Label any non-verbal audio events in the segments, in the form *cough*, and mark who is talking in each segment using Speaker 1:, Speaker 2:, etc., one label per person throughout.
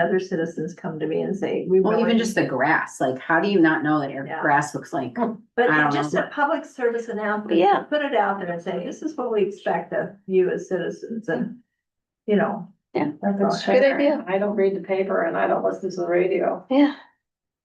Speaker 1: other citizens come to me and say, we
Speaker 2: Well,
Speaker 1: really.
Speaker 2: even just the grass, like, how do you not know that your
Speaker 1: Yeah.
Speaker 2: grass looks like? I
Speaker 1: But
Speaker 2: don't
Speaker 1: just
Speaker 2: know.
Speaker 1: a public service announcement,
Speaker 3: Yeah.
Speaker 1: to put it out there and say, this is what we expect of you as citizens and, you know.
Speaker 3: Yeah.
Speaker 1: that's all.
Speaker 3: Good idea.
Speaker 4: I don't read the paper and I don't listen to the radio.
Speaker 3: Yeah.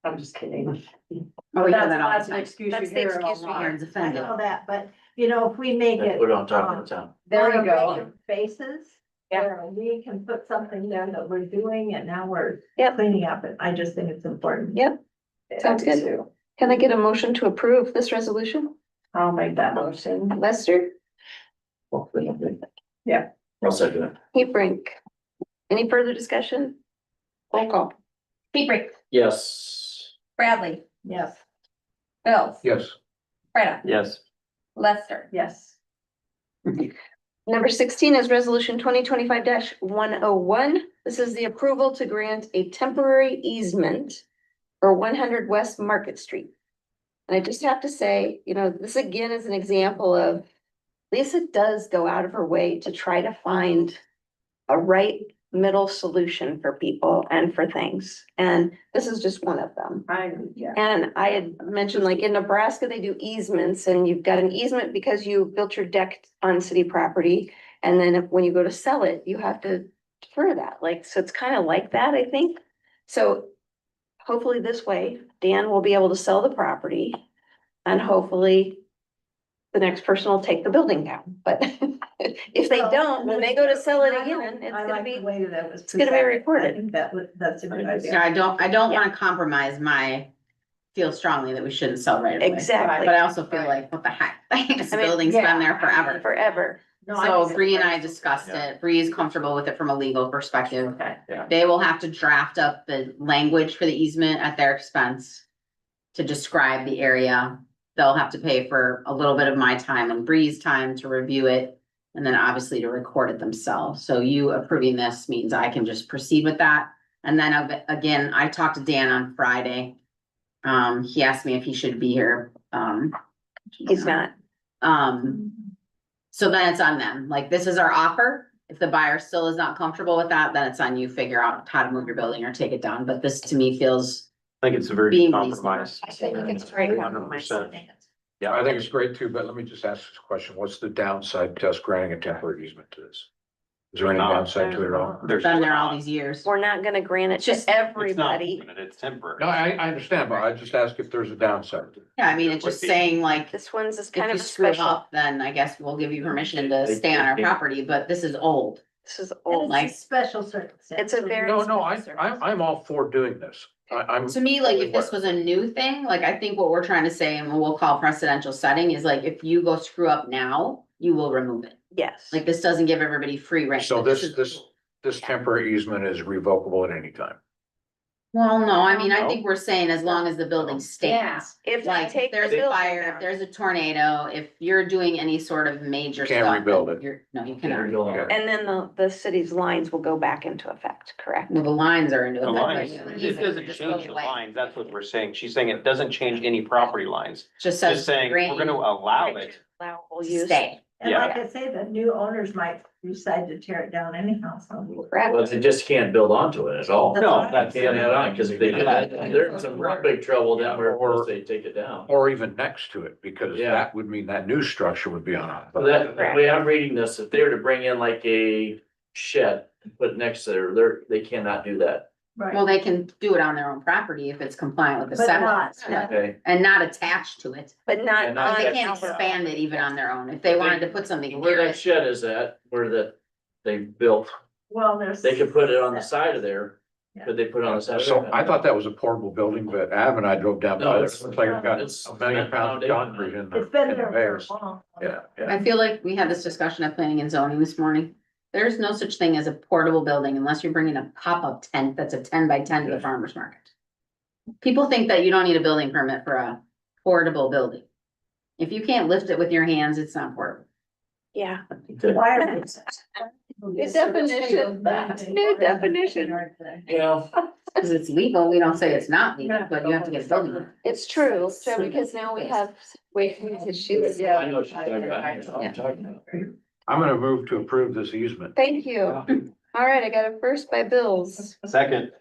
Speaker 4: I'm just kidding.
Speaker 2: Oh, we hear
Speaker 4: That's,
Speaker 2: that all
Speaker 4: that's
Speaker 2: the
Speaker 4: an
Speaker 2: time.
Speaker 4: excuse you
Speaker 3: That's the
Speaker 4: hear a
Speaker 3: excuse we
Speaker 4: lot.
Speaker 2: Aaron's
Speaker 3: hear.
Speaker 1: I
Speaker 2: offended.
Speaker 1: know that, but you know, if we make it.
Speaker 5: Put it on top
Speaker 1: um,
Speaker 5: of the town.
Speaker 4: There
Speaker 1: on
Speaker 4: you
Speaker 1: a
Speaker 4: go.
Speaker 1: regular Basis.
Speaker 4: Yeah.
Speaker 1: where We can put something there that we're doing and now we're
Speaker 3: Yep.
Speaker 1: cleaning up and I just think it's important.
Speaker 3: Yep. Sounds
Speaker 4: Yeah, I do
Speaker 3: good.
Speaker 4: too.
Speaker 3: Can I get a motion to approve this resolution?
Speaker 4: I'll make that motion.
Speaker 3: Lester,
Speaker 4: Yeah.
Speaker 5: I'll second it.
Speaker 3: Hebrink. Any further discussion? Roll call.
Speaker 6: Hebrink,
Speaker 5: Yes.
Speaker 6: Bradley,
Speaker 1: Yes.
Speaker 6: Bills,
Speaker 5: Yes.
Speaker 6: Freda,
Speaker 5: Yes.
Speaker 6: Lester,
Speaker 4: Yes.
Speaker 3: Number sixteen is resolution twenty twenty-five one oh one. This is the approval to grant a temporary easement for one hundred West Market Street. And I just have to say, you know, this again is an example of Lisa does go out of her way to try to find a right middle solution for people and for things. And this is just one of them.
Speaker 4: I, yeah.
Speaker 3: And I had mentioned like in Nebraska, they do easements and you've got an easement because you built your deck on city property. And then if- when you go to sell it, you have to defer that, like, so it's kind of like that, I think. So hopefully this way, Dan will be able to sell the property and hopefully the next person will take the building down, but *laughs* if they don't, when they go to sell it again, it's
Speaker 1: I
Speaker 3: gonna
Speaker 1: like the
Speaker 3: be,
Speaker 1: way that it was.
Speaker 3: it's gonna be
Speaker 1: presented.
Speaker 3: recorded.
Speaker 1: I think that was, that's a good
Speaker 2: So
Speaker 1: idea.
Speaker 2: I don't, I don't wanna compromise my, feel strongly that we shouldn't sell right away.
Speaker 3: exactly,
Speaker 2: But I also feel like, what the heck, *laughs* like, this
Speaker 3: I mean,
Speaker 2: building's
Speaker 4: yeah.
Speaker 2: been there forever.
Speaker 3: forever.
Speaker 4: No, I
Speaker 2: So
Speaker 4: just-
Speaker 2: Bree and I discussed
Speaker 5: Yeah.
Speaker 2: it. Bree is comfortable with it from a legal perspective.
Speaker 4: Okay.
Speaker 2: They will have to draft up the language for the easement at their expense to describe the area. They'll have to pay for a little bit of my time and Bree's time to review it and then obviously to record it themselves. So you approving this means I can just proceed with that. And then ag- again, I talked to Dan on Friday. Um, he asked me if he should be here. Um,
Speaker 3: He's not.
Speaker 2: um,
Speaker 3: Mm-hmm.
Speaker 2: so then it's on them, like, this is our offer. If the buyer still is not comfortable with that, then it's on you, figure out how to move your building or take it down, but this to me feels,
Speaker 5: I think it's a very
Speaker 2: Being
Speaker 5: compromise.
Speaker 3: I think it's great.
Speaker 5: 100%.
Speaker 7: Yeah, I think it's great too, but let me just ask this question. What's the downside to us granting a temporary easement to this? Is there any
Speaker 8: Uh,
Speaker 5: No.
Speaker 7: downside to it at all?
Speaker 5: There's.
Speaker 2: been there all these years.
Speaker 3: We're not gonna grant it
Speaker 2: Just-
Speaker 3: to everybody.
Speaker 5: It's temporary.
Speaker 7: No, I, I understand, but I just ask if there's a downside.
Speaker 2: Yeah, I mean, it's just saying like, if
Speaker 3: This one's is kind
Speaker 2: you
Speaker 3: of a
Speaker 2: screw
Speaker 3: special,
Speaker 2: up, then I guess we'll give you permission to
Speaker 5: They-
Speaker 2: stay on our
Speaker 5: they-
Speaker 2: property, but this is old.
Speaker 3: this is
Speaker 1: And
Speaker 3: old.
Speaker 1: it's a special circumstance.
Speaker 3: It's a very-
Speaker 7: No, no, I, I'm, I'm all for doing this. I, I'm,
Speaker 2: To me, like, if this was a new thing, like, I think what we're trying to say, and what we'll call precedential setting, is like, if you go screw up now, you will remove it.
Speaker 3: Yes.
Speaker 2: Like, this doesn't give everybody free rein.
Speaker 7: so
Speaker 2: but
Speaker 7: this,
Speaker 2: is-
Speaker 7: this, this temporary easement is revocable at any time.
Speaker 2: Well, no, I mean, I
Speaker 7: No.
Speaker 2: think we're saying as long as the building
Speaker 6: yeah,
Speaker 2: stands.
Speaker 3: If they
Speaker 2: Like,
Speaker 3: take
Speaker 2: if
Speaker 3: the
Speaker 2: there's a
Speaker 3: building
Speaker 2: fire, if
Speaker 3: down.
Speaker 2: there's a tornado, if you're doing any sort of major
Speaker 7: Can't
Speaker 2: stuff.
Speaker 7: rebuild
Speaker 2: then
Speaker 7: it.
Speaker 2: You're, no, you
Speaker 5: You're
Speaker 2: cannot.
Speaker 5: going-
Speaker 3: And then the, the city's lines will go back into effect, correct?
Speaker 2: Well, the lines are into.
Speaker 5: The
Speaker 2: effect,
Speaker 5: lines,
Speaker 2: but
Speaker 5: it
Speaker 2: easement would
Speaker 5: doesn't
Speaker 2: just go
Speaker 5: change the
Speaker 2: away.
Speaker 5: lines, that's what we're saying, she's saying it doesn't change any property lines,
Speaker 2: Just says.
Speaker 5: just saying, we're
Speaker 2: grant
Speaker 5: gonna allow it
Speaker 3: Allowable
Speaker 2: to
Speaker 3: use.
Speaker 2: Stay.
Speaker 1: And
Speaker 5: Yeah.
Speaker 1: like I say, the new owners might decide to tear it down anyhow, so.
Speaker 3: Correct.
Speaker 8: Well, they just can't build onto it at all.
Speaker 1: That's
Speaker 5: No,
Speaker 1: all right.
Speaker 5: that's-
Speaker 8: Can't add on, because if they do that, they're in some real big trouble down where
Speaker 7: Or-
Speaker 8: they take it down.
Speaker 7: Or even next to it, because
Speaker 8: Yeah.
Speaker 7: that would mean that new structure would be on. it.
Speaker 8: So that, the way I'm reading this, if they were to bring in like a shed and put it next to there, they're, they cannot do that.
Speaker 2: Well,
Speaker 1: Right.
Speaker 2: they can do it on their own property if it's compliant with the
Speaker 1: But
Speaker 2: setback.
Speaker 1: not-
Speaker 2: Yeah.
Speaker 8: Okay.
Speaker 2: And not attached to it.
Speaker 3: But not
Speaker 8: Yeah,
Speaker 3: on.
Speaker 8: not
Speaker 2: They
Speaker 8: attached.
Speaker 2: can't
Speaker 3: our-
Speaker 2: expand it even on their own. If they wanted to put something
Speaker 8: Where
Speaker 2: near
Speaker 8: that
Speaker 2: it,
Speaker 8: shed is at, where that they built,
Speaker 1: Well, there's.
Speaker 8: they could put it on the side of there. Could they put it on the side? of
Speaker 7: So
Speaker 8: there?
Speaker 7: I thought that was a portable building, but Adam and I drove down
Speaker 8: No,
Speaker 7: by there.
Speaker 8: it's-
Speaker 7: It's like we've got
Speaker 8: it's-
Speaker 7: a million pounds of concrete in the,
Speaker 1: It's
Speaker 7: in
Speaker 1: been
Speaker 7: the
Speaker 1: there for
Speaker 7: bays.
Speaker 1: a long.
Speaker 7: Yeah, yeah.
Speaker 2: I feel like we had this discussion at planning and zoning this morning. There's no such thing as a portable building unless you're bringing a pop-up tent that's a ten by ten to the
Speaker 8: Yeah.
Speaker 2: farmer's market. People think that you don't need a building permit for a portable building. If you can't lift it with your hands, it's not portable.
Speaker 3: Yeah,
Speaker 1: Why
Speaker 3: *laughs*
Speaker 1: are they-
Speaker 3: New
Speaker 1: *laughs*
Speaker 3: definition. New definition.
Speaker 8: Yeah,
Speaker 2: Cause it's legal, we don't say it's not legal, but you have to get a building. permit.
Speaker 3: it's true. So because now we have waiting issues.
Speaker 4: Yeah.
Speaker 8: I know what you're talking about. I know what I'm talking about.
Speaker 7: I'm gonna move to approve this easement.
Speaker 3: Thank you. All right, I got a first by Bills,
Speaker 5: second.